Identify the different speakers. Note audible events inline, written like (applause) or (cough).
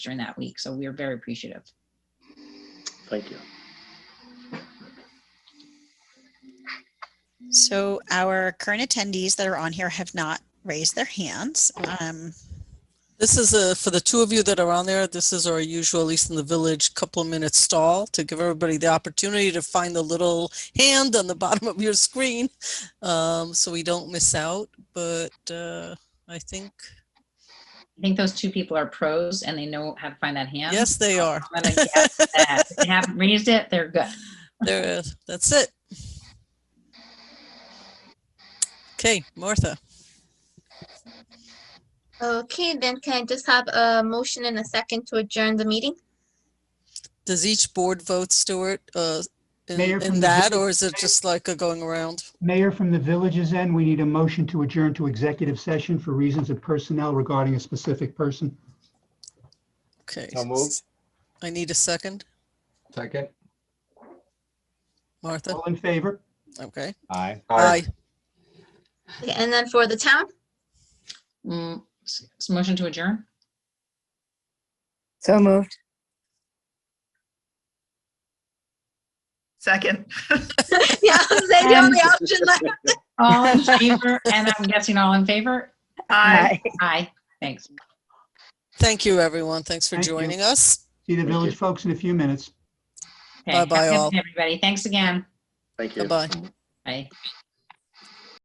Speaker 1: during that week. So we are very appreciative.
Speaker 2: Thank you.
Speaker 3: So our current attendees that are on here have not raised their hands. Um,
Speaker 4: This is a, for the two of you that are on there, this is our usual, at least in the village, couple of minute stall to give everybody the opportunity to find the little hand on the (laughs) bottom of your screen. Um, so we don't miss out, but, uh, I think,
Speaker 1: I think those two people are pros and they know how to find that hand. (laughs)
Speaker 4: yes, they are.
Speaker 1: I'm gonna guess that. If They haven't raised it, they're good.
Speaker 4: There, is- that's it. Okay, Martha,
Speaker 5: Okay, then can I just have a motion and a second to adjourn the meeting?
Speaker 4: does each board vote, Stuart, uh, in,
Speaker 6: Mayor, from
Speaker 4: in
Speaker 6: the
Speaker 4: that,
Speaker 6: village-
Speaker 4: or is it just like a going around?
Speaker 6: Mayor, from the village's end, we need a motion to adjourn to executive session for reasons of personnel regarding a specific person.
Speaker 4: Okay.
Speaker 2: So moved.
Speaker 4: I need a second,
Speaker 7: Second?
Speaker 4: Martha,
Speaker 2: Oh.
Speaker 6: All in favor?
Speaker 4: okay.
Speaker 7: Aye.
Speaker 4: Aye.
Speaker 5: Okay, And then for the town? (laughs)
Speaker 1: Mm, s- s- Motion to adjourn?
Speaker 8: So moved.
Speaker 9: Second.
Speaker 5: Yeah, (laughs) was that the only option left?
Speaker 1: All in favor, and I'm guessing all in favor?
Speaker 9: Aye.
Speaker 1: Aye, thanks.
Speaker 4: Thank you, everyone. Thanks for
Speaker 6: Thank you.
Speaker 4: joining us.
Speaker 6: See the
Speaker 2: you.
Speaker 6: village folks in a few minutes.
Speaker 1: Okay,
Speaker 4: Bye-bye,
Speaker 1: have a good
Speaker 4: all.
Speaker 1: day, Everybody, thanks again.
Speaker 2: Thank you.
Speaker 4: Bye-bye.
Speaker 1: Bye.